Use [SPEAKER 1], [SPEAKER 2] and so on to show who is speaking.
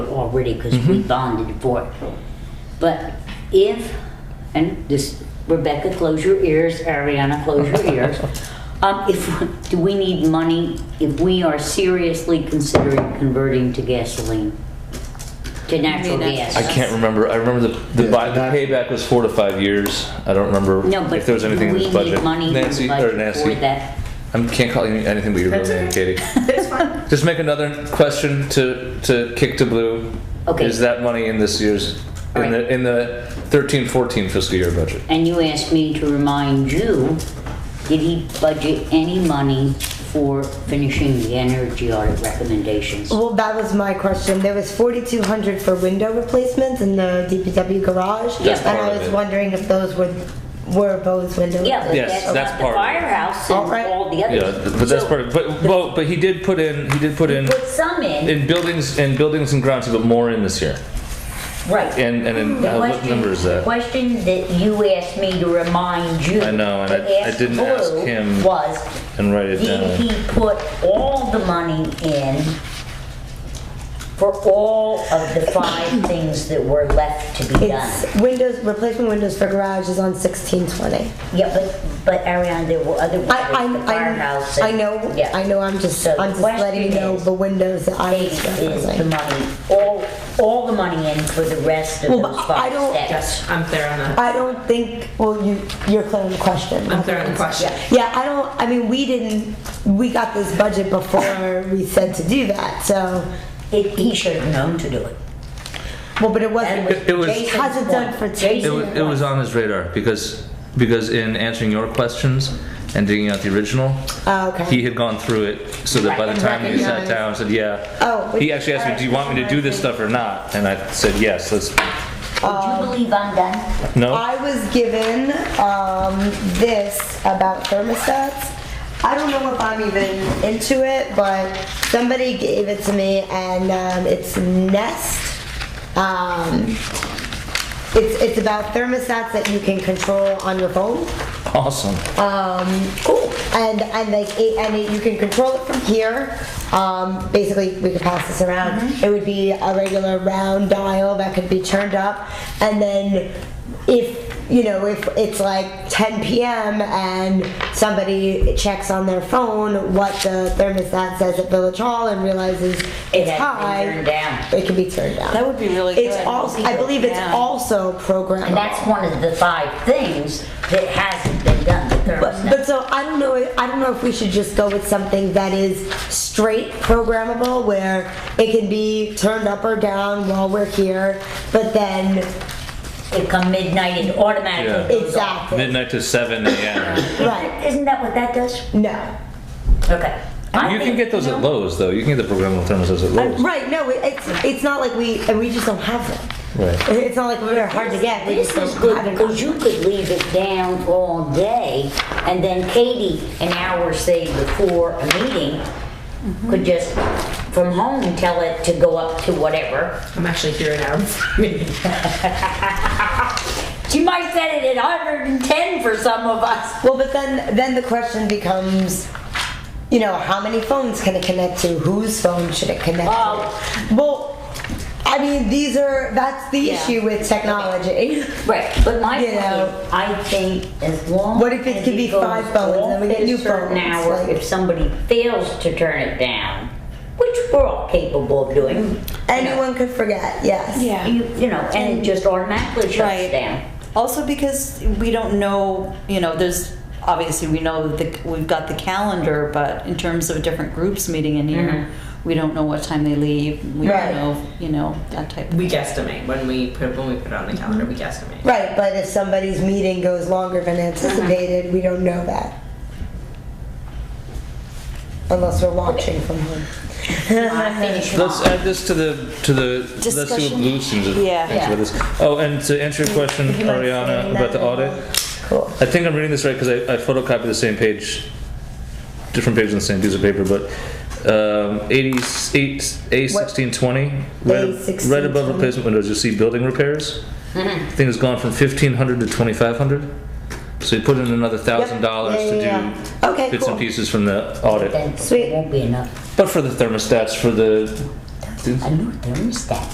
[SPEAKER 1] already because
[SPEAKER 2] Mm-hmm.
[SPEAKER 1] we bonded for it. But if, and this, Rebecca, close your ears, Ariana, close your ears. Um, if, do we need money if we are seriously considering converting to gasoline? To natural
[SPEAKER 3] that's-
[SPEAKER 1] gas?
[SPEAKER 2] I can't remember. I remember the, the,
[SPEAKER 4] Yeah,
[SPEAKER 2] buy, the
[SPEAKER 4] not-
[SPEAKER 2] payback was four to five years. I don't remember
[SPEAKER 1] No, but
[SPEAKER 2] if there was anything in
[SPEAKER 1] do
[SPEAKER 2] this
[SPEAKER 1] we need
[SPEAKER 2] budget.
[SPEAKER 1] money in the
[SPEAKER 2] Nancy or
[SPEAKER 1] budget for
[SPEAKER 2] Nancy,
[SPEAKER 1] that?
[SPEAKER 2] I can't call you anything but your real name, Katie.
[SPEAKER 3] It's fine.
[SPEAKER 2] Just make another question to to kick to blue.
[SPEAKER 1] Okay.
[SPEAKER 2] Is that money in this year's in
[SPEAKER 1] Alright.
[SPEAKER 2] the in the 13-14 fiscal year budget?
[SPEAKER 1] And you asked me to remind you, did he budget any money for finishing the energy audit recommendations?
[SPEAKER 3] Well, that was my question. There was forty-two hundred for window replacements in the DPW garage.
[SPEAKER 1] That's
[SPEAKER 3] And
[SPEAKER 2] part
[SPEAKER 3] I
[SPEAKER 2] of
[SPEAKER 3] was
[SPEAKER 2] it.
[SPEAKER 3] wondering if those were, were those window
[SPEAKER 1] Yeah, but
[SPEAKER 2] Yes,
[SPEAKER 1] that's
[SPEAKER 2] that's
[SPEAKER 1] not the
[SPEAKER 2] part of it.
[SPEAKER 1] firehouse
[SPEAKER 3] All right.
[SPEAKER 1] and all the others.
[SPEAKER 2] Yeah, but that's
[SPEAKER 1] So,
[SPEAKER 2] part of. But well, but he did put in he did put in
[SPEAKER 1] Put some in,
[SPEAKER 2] in buildings in buildings and grounds, but more in this year.
[SPEAKER 1] right.
[SPEAKER 2] And and
[SPEAKER 1] Hmm,
[SPEAKER 2] in, uh, what number is
[SPEAKER 1] The
[SPEAKER 2] that?
[SPEAKER 1] question that you asked me to remind you.
[SPEAKER 2] I know, and
[SPEAKER 1] to
[SPEAKER 2] I- I didn't ask
[SPEAKER 1] Blue
[SPEAKER 2] him.
[SPEAKER 1] Was,
[SPEAKER 2] And write it
[SPEAKER 1] did
[SPEAKER 2] down.
[SPEAKER 1] he put all the money in for all of the five things that were left to be done?
[SPEAKER 3] It's windows, replacement windows for garage is on sixteen twenty.
[SPEAKER 1] Yeah, but, but Ariana, there were other
[SPEAKER 3] I,
[SPEAKER 1] windows, the firehouse.
[SPEAKER 3] I, I, I
[SPEAKER 1] and-
[SPEAKER 3] know,
[SPEAKER 1] Yeah.
[SPEAKER 3] I know, I'm just,
[SPEAKER 1] So the
[SPEAKER 3] I'm just letting you
[SPEAKER 1] question
[SPEAKER 3] know
[SPEAKER 1] is,
[SPEAKER 3] the windows that I was
[SPEAKER 1] Is the
[SPEAKER 3] referencing.
[SPEAKER 1] money, all, all the money in for the rest of
[SPEAKER 3] Well,
[SPEAKER 1] those
[SPEAKER 3] but I
[SPEAKER 1] five
[SPEAKER 3] don't-
[SPEAKER 1] steps?
[SPEAKER 5] I'm clear on that.
[SPEAKER 3] I don't think, well, you, you're clear on the question.
[SPEAKER 5] I'm clear on the question.
[SPEAKER 3] Yeah, I don't, I mean, we didn't, we got this budget before we said to do that, so,
[SPEAKER 1] It, he should have known to do it.
[SPEAKER 3] well, but it
[SPEAKER 1] That
[SPEAKER 3] wasn't.
[SPEAKER 1] was
[SPEAKER 2] It- it was-
[SPEAKER 1] Jason's
[SPEAKER 3] Has it done
[SPEAKER 1] point.
[SPEAKER 3] for two?
[SPEAKER 1] Jason's
[SPEAKER 2] It was, it was on his radar because because in answering your questions and digging out the original,
[SPEAKER 3] Oh, okay.
[SPEAKER 2] he had gone through it so that by the time he sat
[SPEAKER 3] Recognized.
[SPEAKER 2] down and said, yeah.
[SPEAKER 3] Oh,
[SPEAKER 2] He actually asked me, do you want me to do this stuff or not? And I said, yes, let's,
[SPEAKER 1] point.
[SPEAKER 3] Oh.
[SPEAKER 1] Would you believe I'm done?
[SPEAKER 2] no?
[SPEAKER 3] I was given um, this about thermostats. I don't know if I'm even into it, but somebody gave it to me, and um, it's Nest. Um, it's it's about thermostats that you can control on your phone.
[SPEAKER 2] Awesome.
[SPEAKER 3] Um, And and like it, and it, you can control it from here. Um, basically, we could pass this around.
[SPEAKER 1] Mm-hmm.
[SPEAKER 3] It would be a regular round dial that could be turned up, and then if you know if it's like 10 p.m. and somebody checks on their phone what the thermostat says at Village Hall and realizes
[SPEAKER 1] It
[SPEAKER 3] it's
[SPEAKER 1] had
[SPEAKER 3] high,
[SPEAKER 1] been turned down.
[SPEAKER 3] it can be turned down.
[SPEAKER 5] That would be really
[SPEAKER 3] it's
[SPEAKER 5] good.
[SPEAKER 3] also I believe it's
[SPEAKER 5] Yeah.
[SPEAKER 3] also programmable.
[SPEAKER 1] And that's one of the five things that hasn't been done, the
[SPEAKER 3] But,
[SPEAKER 1] thermostat.
[SPEAKER 3] but so I don't know. I don't know if we should just go with something that is straight programmable, where it can be turned up or down while we're here. But then
[SPEAKER 1] It come midnight, it automatically
[SPEAKER 2] Yeah.
[SPEAKER 1] goes off.
[SPEAKER 3] exactly
[SPEAKER 2] Midnight to seven AM.
[SPEAKER 3] right.
[SPEAKER 1] Isn't that what that does?
[SPEAKER 3] No.
[SPEAKER 1] Okay. I
[SPEAKER 2] You can
[SPEAKER 1] think-
[SPEAKER 2] get those at Lowe's though. You can get the programmable thermostats at Lowe's.
[SPEAKER 3] Right. No. it- It's it's not like we and we just don't have them.
[SPEAKER 2] Right.
[SPEAKER 3] It's not like we're hard to get. We
[SPEAKER 1] This
[SPEAKER 3] just
[SPEAKER 1] is
[SPEAKER 3] don't
[SPEAKER 1] good,
[SPEAKER 3] have enough.
[SPEAKER 1] because you could leave it down all day, and then Katie, an hour, say, before a meeting,
[SPEAKER 3] Mm-hmm.
[SPEAKER 1] could just, from home, tell it to go up to whatever.
[SPEAKER 5] I'm actually here now.
[SPEAKER 1] She might have set it at 110 for some of us.
[SPEAKER 3] Well, but then then the question becomes, you know, how many phones can it connect to? Whose phone should it connect
[SPEAKER 1] Wow.
[SPEAKER 3] to? Well, I mean, these are that's the
[SPEAKER 5] Yeah.
[SPEAKER 3] issue with technology.
[SPEAKER 1] Right, but my point
[SPEAKER 3] You know.
[SPEAKER 1] is, I think as long.
[SPEAKER 3] What if it
[SPEAKER 1] as
[SPEAKER 3] could be
[SPEAKER 1] goes
[SPEAKER 3] five phones,
[SPEAKER 1] off
[SPEAKER 3] then we get
[SPEAKER 1] at a
[SPEAKER 3] new
[SPEAKER 1] certain
[SPEAKER 3] phones,
[SPEAKER 1] hour,
[SPEAKER 3] like-
[SPEAKER 1] If somebody fails to turn it down, which we're all capable of doing,
[SPEAKER 3] Anyone could forget. Yes.
[SPEAKER 6] Yeah.
[SPEAKER 1] you, you know, and it just automatically shuts
[SPEAKER 6] Right.
[SPEAKER 1] down.
[SPEAKER 6] Also because we don't know, you know, there's, obviously we know that we've got the calendar, but in terms of different groups meeting in here, we don't know what time they leave, we
[SPEAKER 3] Right.
[SPEAKER 6] don't know, you know, that type of
[SPEAKER 5] We guesstimate when we put when we put it on the calendar. We guesstimate.
[SPEAKER 3] Right, but if somebody's meeting goes longer than anticipated, we don't know that. Unless we're watching from home.
[SPEAKER 1] I finish
[SPEAKER 2] Let's
[SPEAKER 1] mine.
[SPEAKER 2] add this to the, to the, let's see what
[SPEAKER 6] Discussion.
[SPEAKER 2] Blue seems to
[SPEAKER 6] Yeah.
[SPEAKER 2] thinks about this. Oh, and to answer your question,
[SPEAKER 3] Would you mind
[SPEAKER 2] Ariana,
[SPEAKER 3] saying
[SPEAKER 2] about
[SPEAKER 3] that?
[SPEAKER 2] the audit,
[SPEAKER 3] Cool.
[SPEAKER 2] I think I'm reading this right because I, I photocopied the same page, different page on the same piece of paper, but um, 88, A1620, right, right above
[SPEAKER 3] A1620.
[SPEAKER 2] replacement windows, you'll see building repairs.
[SPEAKER 3] Mm-hmm.
[SPEAKER 2] Thing has gone from 1500 to 2500. So you put in another thousand dollars
[SPEAKER 3] Yeah,
[SPEAKER 2] to
[SPEAKER 3] yeah,
[SPEAKER 2] do
[SPEAKER 3] yeah. Okay,
[SPEAKER 2] bits
[SPEAKER 3] cool.
[SPEAKER 2] and pieces from the audit,
[SPEAKER 1] Then
[SPEAKER 3] Sweet.
[SPEAKER 1] it won't be enough.
[SPEAKER 2] but for the thermostats, for the
[SPEAKER 1] A new thermostat.